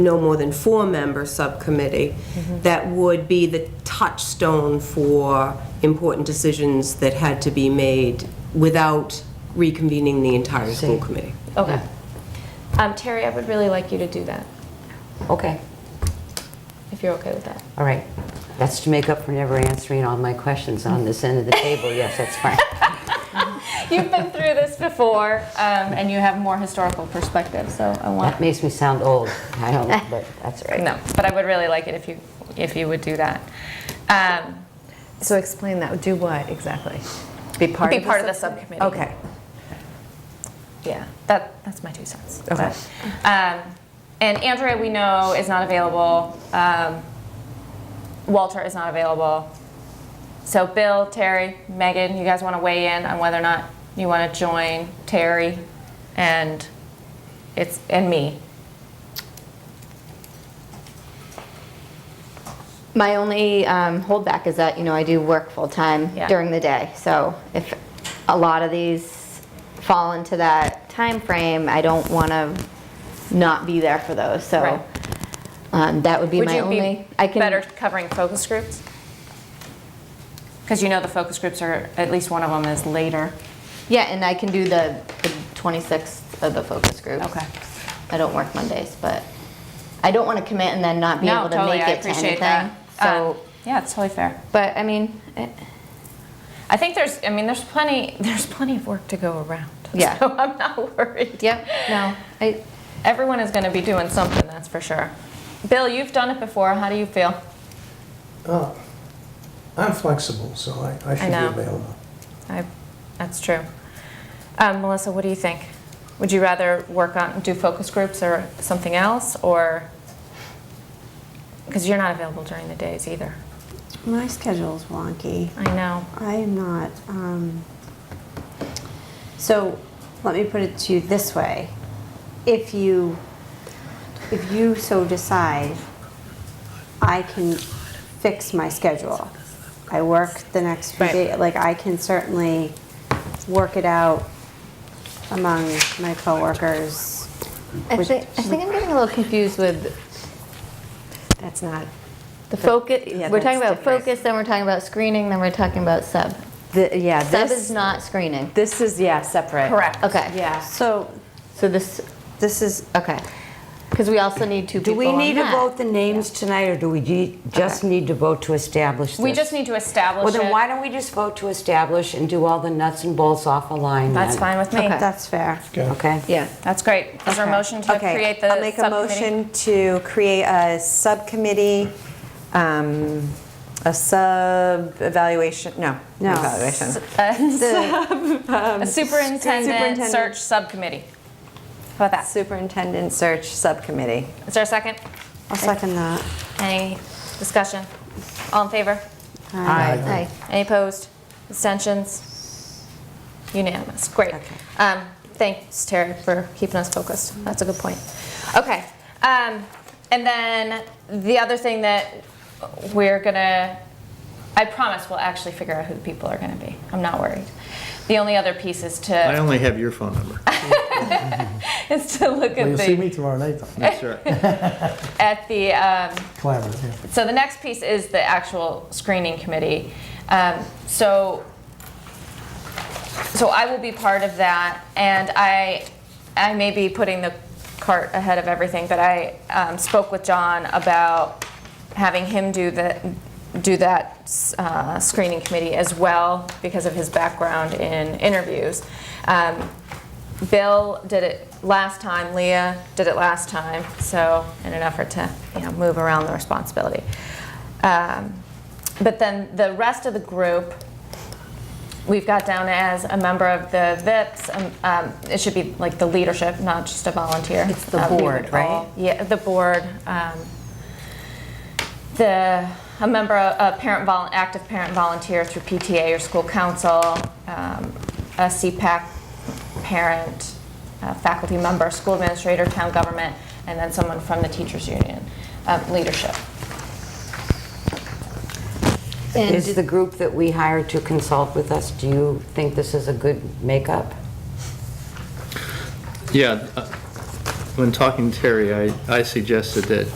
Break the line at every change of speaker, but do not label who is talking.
no more than four-member subcommittee that would be the touchstone for important decisions that had to be made without reconvening the entire school committee.
Okay. Um, Terry, I would really like you to do that,
Okay,
if you're okay with that.
all right. That's to make up for never answering all my questions on this end of the table. Yes, that's fine.
You've been through this before, um, and you have more historical perspective, so I want.
That makes me sound old. I don't, but that's all right.
No, but I would really like it if you, if you would do that. Um,
So explain that, do what exactly? Be part
Be
of the
part of the
subcommittee?
subcommittee.
Okay.
Yeah, that, that's my two cents.
Okay.
But, Um, and Andrea, we know, is not available. Um, Walter is not available. So Bill, Terry, Megan, you guys want to weigh in on whether or not you want to join Terry and it's and me.
My only um, holdback is that, you know, I do work full-time
Yeah.
during the day. So if a lot of these fall into that time frame, I don't want to not be there for those.
Right.
So um, that would be
Would
my
you be
only. I can
better covering focus groups? Because you know the focus groups are at least one of them is later.
Yeah, and I can do the the 26th of the focus group.
Okay.
I don't work Mondays, but I don't want to commit and then not be
no,
able to
totally.
make
I
it to
appreciate
anything.
that. Um,
So,
yeah, it's totally fair.
but I mean, it-
I think there's, I mean, there's plenty, there's plenty of work to go around.
Yeah.
So I'm not worried.
yep, no, I,
Everyone is going to be doing something, that's for sure. Bill, you've done it before. How do you feel?
Uh, I'm flexible, so I, I should
know.
be available.
I, that's true. Um, Melissa, what do you think? Would you rather work on, do focus groups or something else, or? Because you're not available during the days either.
My schedule's wonky.
I know.
I am not. Um, so let me put it to you this way: if you, if you so decide, I can fix my schedule. I work the next few
Right.
days. Like I can certainly work it out among my coworkers.
I
Which-
think, I think I'm getting a little confused with
That's not,
the focus,
Yeah,
we're talking
that's
about
different.
focus, then we're talking about screening, then we're talking about sub.
the- yeah,
Sub is
this,
not screening.
this is, yeah, separate.
Correct.
Okay,
Yeah.
So
so this,
this is
okay. Because we also need two
Do
people
we
on
need to
that.
vote the names tonight, or do we ju- just need to vote to establish this?
We just need to establish
Well, then
it.
why don't we just vote to establish and do all the nuts and bolts off a line
That's
then?
fine with me.
Okay.
that's fair.
Okay?
Yeah.
That's great. Is there a motion to
Okay,
create the
I'll make a
subcommittee?
motion to create a subcommittee, um, a sub-evaluation, no.
No.
Evaluation.
A superintendent
superintendent.
search subcommittee. How about that?
Superintendent Search Subcommittee.
Is there a second?
I'll second that.
Any discussion? All in favor?
Aye.
Any opposed? Abstentions? Unanimous. Great. Um, Thanks, Terry, for keeping us focused. That's a good point. Okay. um, And then the other thing that we're gonna, I promise we'll actually figure out who the people are gonna be. I'm not worried. The only other piece is
I
to,
only have your phone number.
is to look
Well,
at
you'll see
the,
me tomorrow night, though.
That's right.
at the, um,
Collaborative, yeah.
So the next piece is the actual screening committee. Um, so, so I will be part of that, and I, I may be putting the cart ahead of everything, but I um, spoke with John about having him do the, do that uh, screening committee as well because of his background in interviews. Um, Bill did it last time, Leah did it last time, so in an effort to, you know, move around the responsibility. Um, But then the rest of the group, we've got down as a member of the VIPS, um, um, it should be like the leadership, not just a volunteer.
It's the
Uh, we
board,
would all-
right?
Yeah, the board, um, the, a member, a parent, vol- active parent volunteer through PTA or school council, um, a CPAC parent, a faculty member, school administrator, town government, and then someone from the teachers union um, leadership.
And
Is the group that we hire to consult with us, do you think this is a good makeup?
Yeah, uh, when talking to Terry, I, I suggested that